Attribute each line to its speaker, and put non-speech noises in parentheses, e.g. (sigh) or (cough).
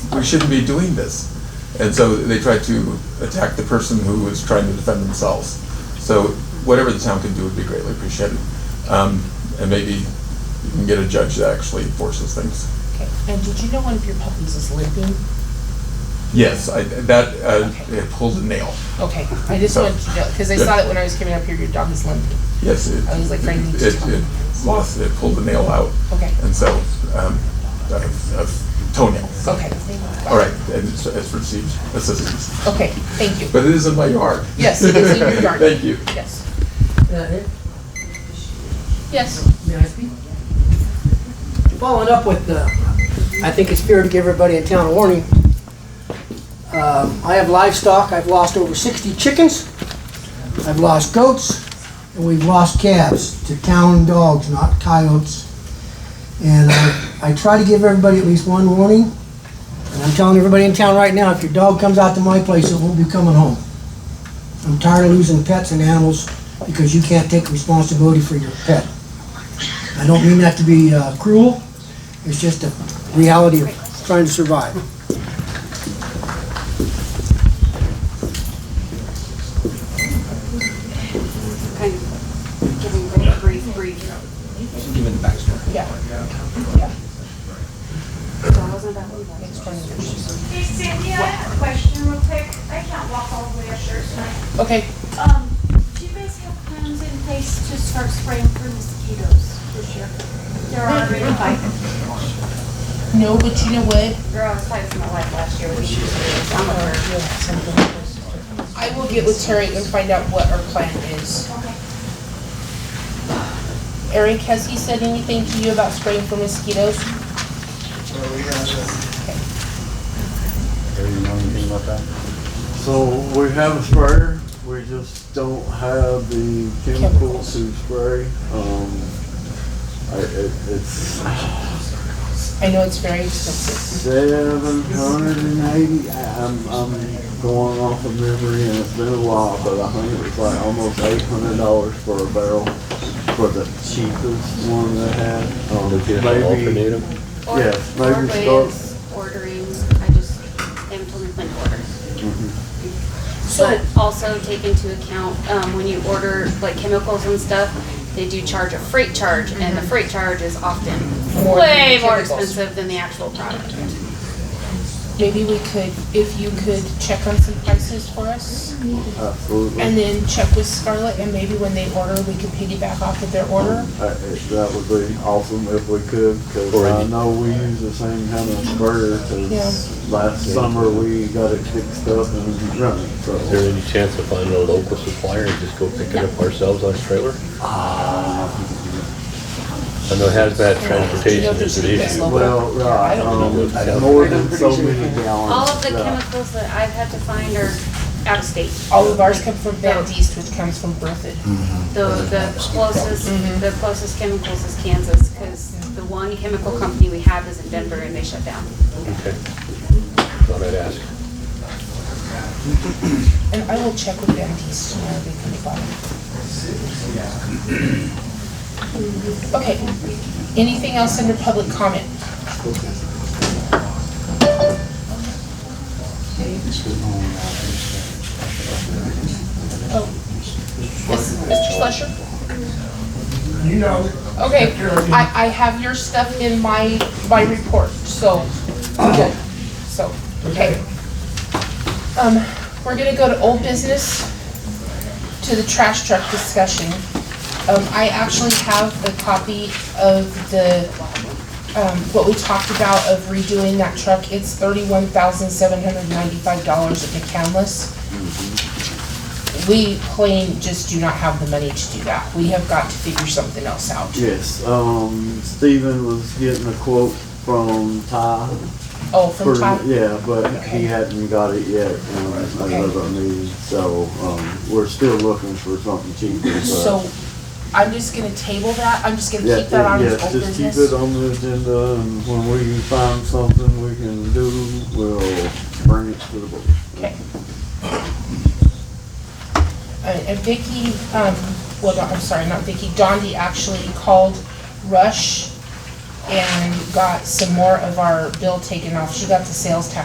Speaker 1: we shouldn't be doing this. And so they tried to attack the person who was trying to defend themselves. So whatever the town can do would be greatly appreciated. Um, and maybe you can get a judge that actually enforces things.
Speaker 2: Okay, and did you know one of your puppies is limping?
Speaker 1: Yes, I, that, uh,
Speaker 2: Okay.
Speaker 1: it pulled a nail.
Speaker 2: Okay, I just
Speaker 1: So-
Speaker 2: wanted to know, because I saw that when I was coming up here, your dog is limping.
Speaker 1: Yes, it.
Speaker 2: I was like, Frank needs to
Speaker 1: It,
Speaker 2: tell me.
Speaker 1: it lost, it pulled the nail out.
Speaker 2: Okay.
Speaker 1: And so, um, a, a toenail.
Speaker 2: Okay.
Speaker 1: All right, and it's, it's received assistance.
Speaker 2: Okay, thank you.
Speaker 1: But it is in my yard.
Speaker 2: Yes, it is
Speaker 1: (laughs)
Speaker 2: in your yard.
Speaker 1: Thank you.
Speaker 2: Yes.
Speaker 3: that it?
Speaker 2: Yes.
Speaker 3: May I speak? Following up with the, I think it's fair to give everybody in town a warning. Um, I have livestock, I've lost over 60 chickens, I've lost goats, and we've lost calves to town dogs, not coyotes. And I I try to give everybody at least one warning, and I'm telling everybody in town right now, if your dog comes out to my place, it won't be coming home. I'm tired of losing pets and animals because you can't take responsibility for your pet. I don't mean that to be uh, cruel, it's just a reality of trying to survive.
Speaker 4: kind of giving a brief, brief.
Speaker 5: Given the backstory.
Speaker 2: Yeah.
Speaker 6: Hey Sandy, I have a question real quick. I can't walk all the way up there tonight.
Speaker 2: Okay,
Speaker 6: Um, do you guys have plans in place to start spraying for mosquitoes this year? There are already like,
Speaker 2: no, but you know what?
Speaker 4: Girl, I was talking to my wife last year, we should do this. I'm over.
Speaker 2: I will get with Terry and find out what our plan is.
Speaker 6: okay.
Speaker 2: Eric, has he said anything to you about spraying for mosquitoes?
Speaker 5: Gary, you know anything about that?
Speaker 7: So we have a sprayer, we just don't have the chemicals to spray. Um, I, it, it's
Speaker 2: I know it's very expensive.
Speaker 7: seven hundred and eighty, I'm, I'm going off of memory and it's been a while, but I think it was like almost eight hundred dollars for a barrel for the cheapest one they had. Um, Maybe,
Speaker 4: Or-
Speaker 7: Yes,
Speaker 4: or
Speaker 7: maybe
Speaker 4: Ray
Speaker 7: start-
Speaker 4: is Ordering, I just, I haven't told him when to order.
Speaker 2: So,
Speaker 4: But also take into account, um, when you order like chemicals and stuff, they do charge a freight charge, and the freight charge is often
Speaker 2: More than
Speaker 4: Mm-hmm. way
Speaker 2: the
Speaker 4: more
Speaker 2: chemicals.
Speaker 4: expensive than the actual product.
Speaker 2: maybe we could, if you could check on some prices for us?
Speaker 7: absolutely.
Speaker 2: And then check with Scarlett, and maybe when they order, we could piggyback off of their order.
Speaker 7: Uh, it- That would be awesome if we could, because
Speaker 5: Or
Speaker 7: I
Speaker 5: any-
Speaker 7: know we use the same kind of sprayer, because last summer we got it fixed up and running,
Speaker 8: Is
Speaker 7: so.
Speaker 8: there any chance of finding a local supplier and just go pick it up ourselves on a trailer? I know hazmat transportation is an issue.
Speaker 7: Well, right,
Speaker 8: I don't
Speaker 7: um,
Speaker 8: know.
Speaker 7: more than so many gallons.
Speaker 4: All of the
Speaker 7: yeah.
Speaker 4: chemicals that I've had to find are out of state.
Speaker 2: All of ours come from Van East, which comes from Berthoud.
Speaker 4: The, the closest, the closest chemicals is Kansas, because the one chemical company we have is in Denver and they shut down.
Speaker 8: Okay. Thought I'd ask.
Speaker 2: And I will check with Van East tomorrow, they can buy it. Okay, anything else under public comment? Oh, Yes, Mr. Slusher? You know. Okay, I, I have your stuff in my, my report, so, okay, so, okay. Um, we're gonna go to old business, to the trash truck discussion. Um, I actually have the copy of the, um, what we talked about of redoing that truck. It's thirty-one thousand seven hundred ninety-five dollars at McCandless. We plain just do not have the money to do that. We have got to figure something else out.
Speaker 7: Yes, um, Stephen was getting a quote from Ty.
Speaker 2: Oh, from
Speaker 7: for-
Speaker 2: Todd?
Speaker 7: Yeah, but
Speaker 2: Okay.
Speaker 7: he hadn't got it yet, um,
Speaker 2: Okay.
Speaker 7: another need, so, um, we're still looking for something cheaper, but.
Speaker 2: So, I'm just gonna table that. I'm just gonna
Speaker 7: Yeah,
Speaker 2: keep that on
Speaker 7: yeah,
Speaker 2: as old business.
Speaker 7: Just keep it on the agenda, and when we find something we can do, we'll bring it to the board.
Speaker 2: Okay. Uh, And Vicky, um, well, no, I'm sorry, not Vicky, Dondi actually called Rush and got some more of our bill taken off. She got the sales tax